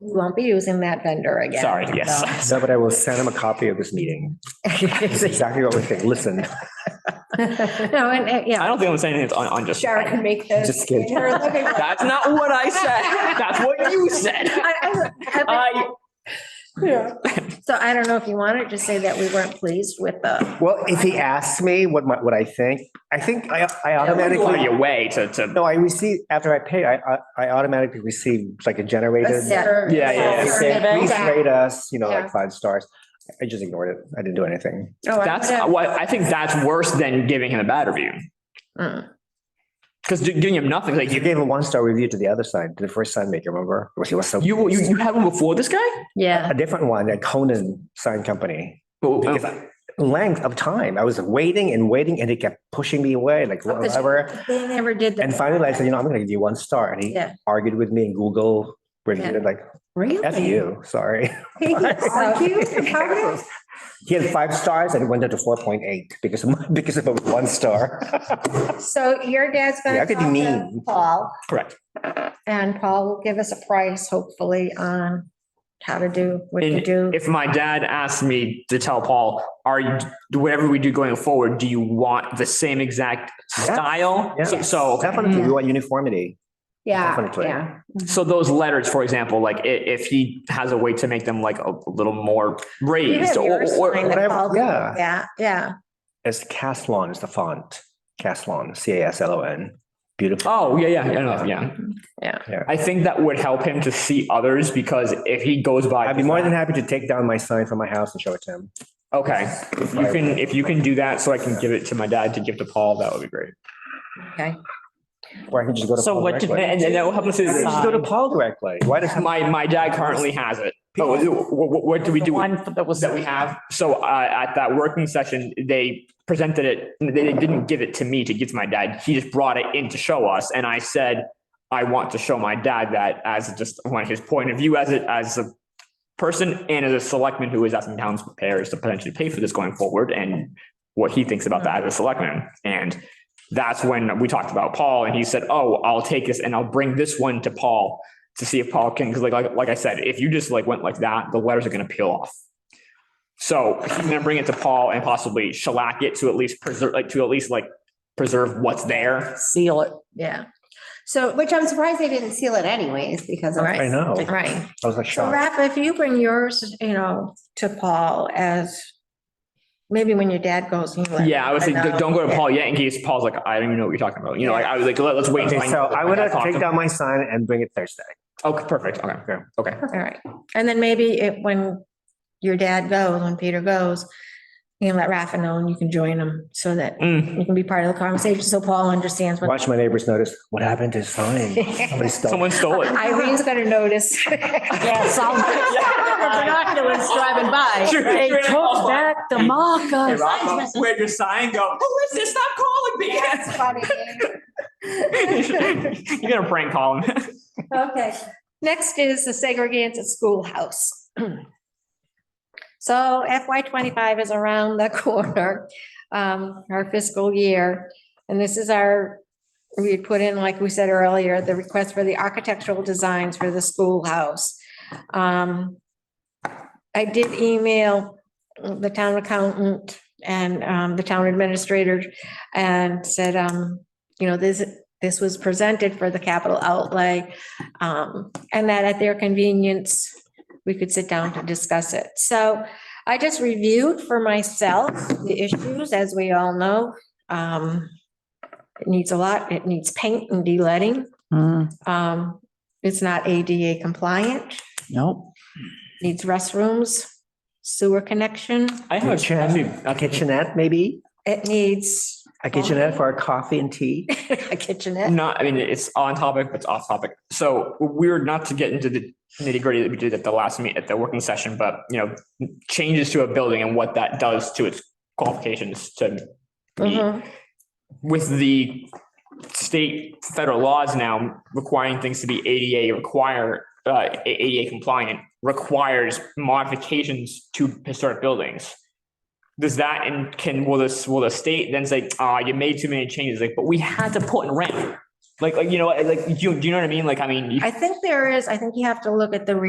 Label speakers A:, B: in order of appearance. A: We won't be using that vendor again.
B: Sorry, yes.
C: No, but I will send him a copy of this meeting. It's exactly what we think. Listen,
A: No, and, uh,
B: I
A: yeah,
B: don't think I'm saying it's on, on just.
A: Shara can make this.
C: Just kidding.
A: in her living room.
B: That's not what I said. That's what you said.
A: I- I- I-
B: I,
A: Yeah. So I don't know if you want to just say that we weren't pleased with the,
C: well, if he asks me what my, what I think, I think I, I
B: automatically
C: automatically,
B: your way to, to.
C: no, I receive, after I pay, I, I- I automatically receive like a
A: the
C: generated.
A: server.
B: Yeah, yeah,
C: They say, Please rate us, you know,
A: Yeah.
C: like five stars. I just ignored it. I didn't do anything.
A: Oh, I
B: That's
A: would've-
B: what, I think that's worse than giving him a bad review.
A: Mm.
B: Because giving him nothing, like
C: You
B: you,
C: gave a one-star review to the other side, to the first sign maker, remember? He was so.
B: you, you, you had one before this guy?
A: Yeah.
C: A different one, a Conan Sign Company.
B: Oh,
C: Because
B: oh.
C: I- length of time, I was waiting and waiting and he kept pushing me away, like whatever.
A: They never did that.
C: And finally I said, you know, I'm gonna give you one star. And he
A: Yeah.
C: argued with me and Google reviewed
A: Yeah.
C: it like, F you, sorry.
A: So-
C: He had five stars and it went down to four point eight because of, my- because of a one star.
A: So your dad's
C: Yeah, I
A: gonna
C: could
A: talk
C: be
A: to
C: mean.
A: Paul,
B: Correct.
A: and Paul will give us a price, hopefully, on how to do what to
B: And
A: do.
B: if my dad asked me to tell Paul, are you, whatever we do going forward, do you want the same exact style?
C: Yeah.
B: So- So,
C: Definitely, we want uniformity.
A: Yeah,
C: definitely.
A: yeah.
B: so those letters, for example, like i- if he has a way to make them like a little more
A: You have
B: raised or,
A: yours
B: or,
A: signed that
C: whatever,
A: Paul-
C: yeah.
A: Yeah, yeah.
C: It's Caslon is the font. Caslon, C A S L O N. Beautiful.
B: oh, yeah, yeah, yeah, no, yeah.
A: Yeah.
C: Yeah.
B: I think that would help him to see others because if he goes by.
C: I'd be more than happy to take down my sign from my house and show it to him.
B: Okay, if you can, if you can do that, so I can give it to my dad to give to Paul, that would be great.
A: Okay.
C: Or I can just go to.
D: So
C: Paul
D: what did-
C: directly.
B: And and that will help us.
C: I can Just go to
D: sign?
C: Paul directly. Why does?
B: My, my dad currently has it. Oh, what, what, what do we
D: The
B: do? with-
D: um, One that was.
B: that we have. So uh, at that working session, they presented it. They, they didn't give it to me to give to my dad. He just brought it in to show us, and I said, "I want to show my dad that as just one his point of view as it as a person and as a selectman who is asking towns preparers to potentially pay for this going forward, and what he thinks about that as a selectman." And that's when we talked about Paul, and he said, "Oh, I'll take this and I'll bring this one to Paul." To see if Paul can, because like, like like I said, if you just like went like that, the letters are going to peel off. So he's gonna bring it to Paul and possibly shellac it to at least preserve, like to at least like preserve what's there.
D: Seal it.
A: Yeah. So,
E: Which I'm surprised they didn't seal it anyways, because of-
A: Right.
C: I know.
A: right.
C: I was like
A: So
C: shocked.
A: Rafa, if you bring yours, you know, to Paul as, maybe when your dad goes. you let
B: Yeah, I would say
A: him know.
B: don't go to
A: Yeah.
B: Paul yet in case Paul's like, I don't even know what you're talking about. You know, like I was like, let- let's wait.
C: Okay,
B: until
C: so
B: know
C: I
B: what
C: would
B: talked
C: take
B: about.
C: down my sign and bring it Thursday.
B: Okay, perfect. Okay,
C: Okay.
B: okay.
A: All right. And then maybe it, when your dad goes, when Peter goes, you can let Rafa know and you can join him so that
B: Mm.
A: you can be part of the conversation. So Paul understands what.
C: Watch my neighbors notice, what happened to his sign? Somebody stole it.
B: Someone stole it.
A: Irene's gonna notice.
D: Yes, I'll.
E: binoculars driving by.
D: They took back the
B: Hey,
D: marker.
B: Rafa, Where'd your sign go? Who is this? Oh, Stop calling me. You're gonna prank call him.
A: Okay, next is the segregated schoolhouse. So FY twenty-five is around the corner, um, our fiscal year. And this is our, we had put in, like we said earlier, the request for the architectural designs for the schoolhouse. Um, I did email the town accountant and, um, the town administrator and said, um, you know, this, this was presented for the capital outlay. um, And that at their convenience, we could sit down to discuss it. So I just reviewed for myself the issues, as we all know. Um, It needs a lot. It needs paint and de-letting.
D: Mm,
A: Um, It's not ADA compliant,
D: Nope.
A: needs restrooms, sewer connection.
B: I have a
C: Kitchen, a kitchenette, maybe?
A: It needs
C: A kitchenette for our coffee and tea?
A: a kitchenette.
D: Mm.
B: not, I mean, it's on topic, but it's off topic. So we're not to get into the nitty gritty that we did at the last meet, at the working session, but you know, changes to a building and what that does to its qualifications to meet.
A: Mhm.
B: With the state, federal laws now requiring things to be ADA require, uh, A- ADA compliant requires modifications to historic buildings. Does that and can, will this, will the state then say, ah, you made too many changes, like, but we had to put in rent? Like, like, you know, like, do you, do you know what I mean? Like, I mean. you-
A: I think there is, I think you have to look at the re,